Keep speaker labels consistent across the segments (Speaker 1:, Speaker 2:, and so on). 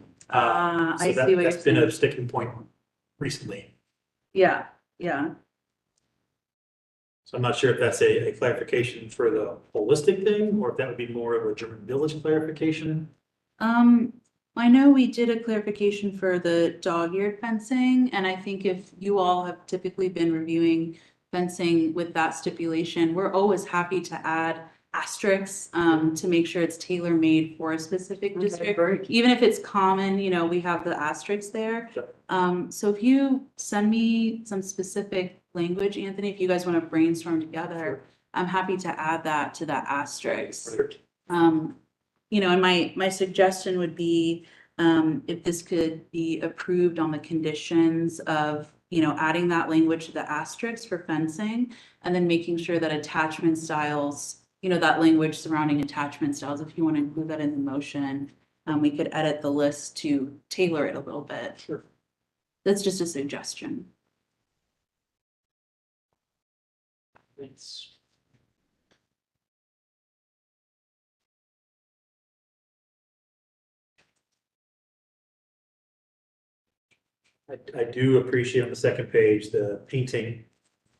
Speaker 1: Uh,
Speaker 2: Ah,
Speaker 1: so
Speaker 2: I see
Speaker 1: that-
Speaker 2: what you're
Speaker 1: That's been a
Speaker 2: saying.
Speaker 1: sticking point recently.
Speaker 2: Yeah, yeah.
Speaker 1: So I'm not sure if that's a, a clarification for the holistic thing, or if that would be more of a German village clarification.
Speaker 2: Um, I know we did a clarification for the dog-eared fencing, and I think if you all have typically been reviewing fencing with that stipulation, we're always happy to add asterisks, um, to make sure it's tailor-made for a specific district. Even if it's common, you know, we have the asterisks there.
Speaker 1: Sure.
Speaker 2: Um, so if you send me some specific language, Anthony, if you guys want to brainstorm together, I'm happy to add that to that asterisk. Um, you know, and my, my suggestion would be, um, if this could be approved on the conditions of, you know, adding that language to the asterisks for fencing and then making sure that attachment styles, you know, that language surrounding attachment styles, if you want to include that in the motion, um, we could edit the list to tailor it a little bit.
Speaker 1: Sure.
Speaker 2: That's just a suggestion.
Speaker 1: Thanks. I, I do appreciate on the second page, the painting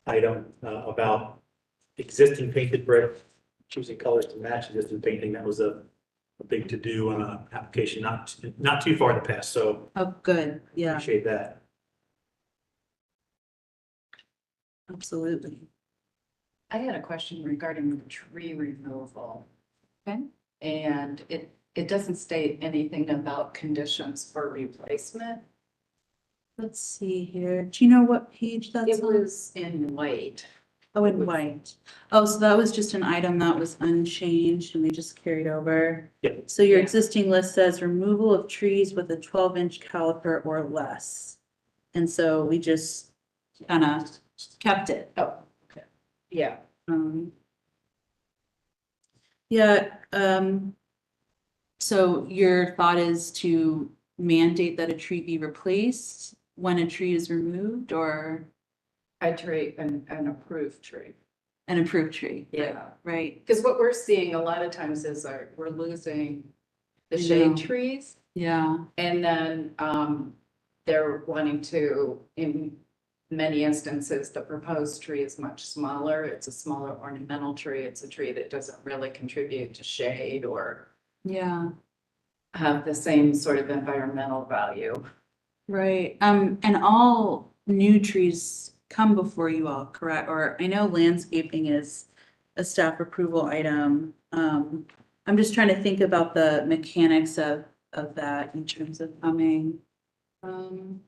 Speaker 1: item uh, about existing painted brick, choosing colors to match existing painting. That was a, a big to-do on an application not, not too far in the past, so
Speaker 2: Oh, good. Yeah,
Speaker 1: appreciate that.
Speaker 2: absolutely.
Speaker 3: I had a question regarding the tree removal.
Speaker 2: Okay.
Speaker 3: And it, it doesn't state anything about conditions for replacement.
Speaker 2: Let's see here. Do you know what page that's
Speaker 3: It
Speaker 2: on?
Speaker 3: was in white.
Speaker 2: Oh, in
Speaker 3: Would-
Speaker 2: white. Oh, so that was just an item that was unchanged and we just carried over.
Speaker 1: Yeah.
Speaker 2: So your
Speaker 3: Yeah.
Speaker 2: existing list says removal of trees with a twelve inch caliper or less. And so we just kind of kept it.
Speaker 3: Oh, okay. Yeah,
Speaker 2: Um. Yeah, um. So your thought is to mandate that a tree be replaced when a tree is removed or
Speaker 3: a tree, an, an approved tree.
Speaker 2: an approved tree? right?
Speaker 3: Yeah.
Speaker 2: Right,
Speaker 3: Because what we're seeing a lot of times is our, we're losing the
Speaker 2: Yeah.
Speaker 3: shade trees.
Speaker 2: yeah.
Speaker 3: And then, um, they're wanting to, in many instances, the proposed tree is much smaller. It's a smaller ornamental tree. It's a tree that doesn't really contribute to shade or
Speaker 2: Yeah,
Speaker 3: have the same sort of environmental value.
Speaker 2: right. Um, and all new trees come before you all, correct? Or I know landscaping is a staff approval item. Um, I'm just trying to think about the mechanics of, of that in terms of coming. Um,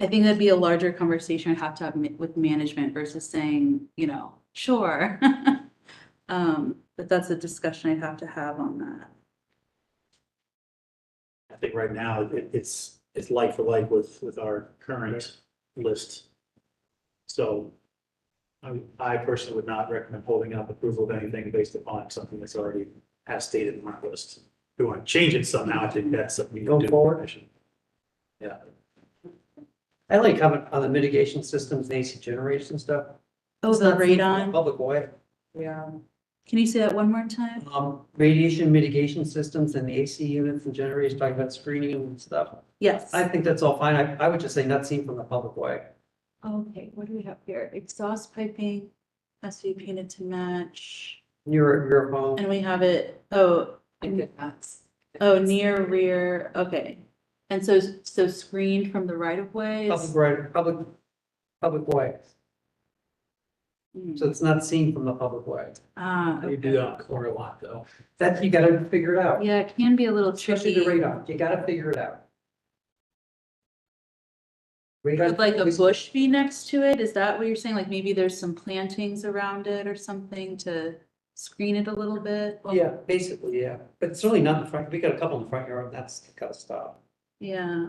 Speaker 2: I think that'd be a larger conversation I'd have to have ma- with management versus saying, you know, sure. Um, but that's a discussion I'd have to have on that.
Speaker 1: I think right now, it, it's, it's like for like with, with our current list. So I, I personally would not recommend holding up approval of anything based upon something that's already has stated in my list. If we want to change it somehow, I think that's something we can
Speaker 4: Go
Speaker 1: do.
Speaker 4: forward.
Speaker 1: Yeah,
Speaker 4: I like how on the mitigation systems, and AC generators and stuff.
Speaker 2: Oh,
Speaker 4: It's
Speaker 2: the
Speaker 4: not food for the
Speaker 2: radon.
Speaker 4: Public way,
Speaker 3: Yeah.
Speaker 2: Can you say that one more time?
Speaker 4: um, radiation mitigation systems and the AC units and generators, talking about screening and stuff.
Speaker 2: Yes.
Speaker 4: I think that's all fine. I, I would just say not seen from the public way.
Speaker 2: Okay, what do we have here? Exhaust piping has to be painted to match.
Speaker 4: Your, your home,
Speaker 2: And we have it, oh,
Speaker 3: I think that's.
Speaker 2: oh, near rear, okay. And so, so screened from the right of way
Speaker 4: public
Speaker 2: is.
Speaker 4: right, public, public way.
Speaker 2: Mm.
Speaker 4: So it's not seen from the public way.
Speaker 2: Ah,
Speaker 1: you do
Speaker 2: okay.
Speaker 4: uh,
Speaker 1: that on corner a lot, though.
Speaker 4: That you gotta figure it out,
Speaker 2: Yeah, it can be a little
Speaker 4: especially the
Speaker 2: tricky.
Speaker 4: radon. You gotta figure it out.
Speaker 2: Would
Speaker 4: Radon,
Speaker 2: like a bush be next to it? Is that what you're saying? Like maybe there's some plantings around it or something to screen it a little bit?
Speaker 4: Yeah, basically, yeah. But it's really not in the front. We got a couple in the front yard. and That's the kind of stuff.
Speaker 2: Yeah,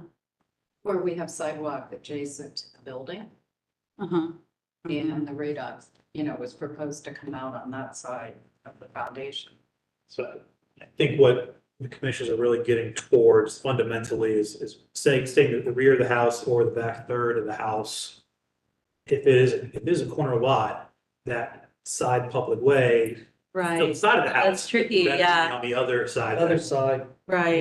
Speaker 3: Where we have sidewalk adjacent to the building
Speaker 2: uh-huh.
Speaker 4: Mm-hmm.
Speaker 3: and the radon, you know, was proposed to come out on that side of the foundation.
Speaker 1: So I think what the commissioners are really getting towards fundamentally is, is saying, saying that the rear of the house or the back third of the house. If it is, if it is a corner lot, that side public way,
Speaker 2: Right,
Speaker 1: the side of the house.
Speaker 2: That's tricky,
Speaker 1: better than
Speaker 2: yeah.
Speaker 1: On the other side.
Speaker 4: Other side,
Speaker 2: right.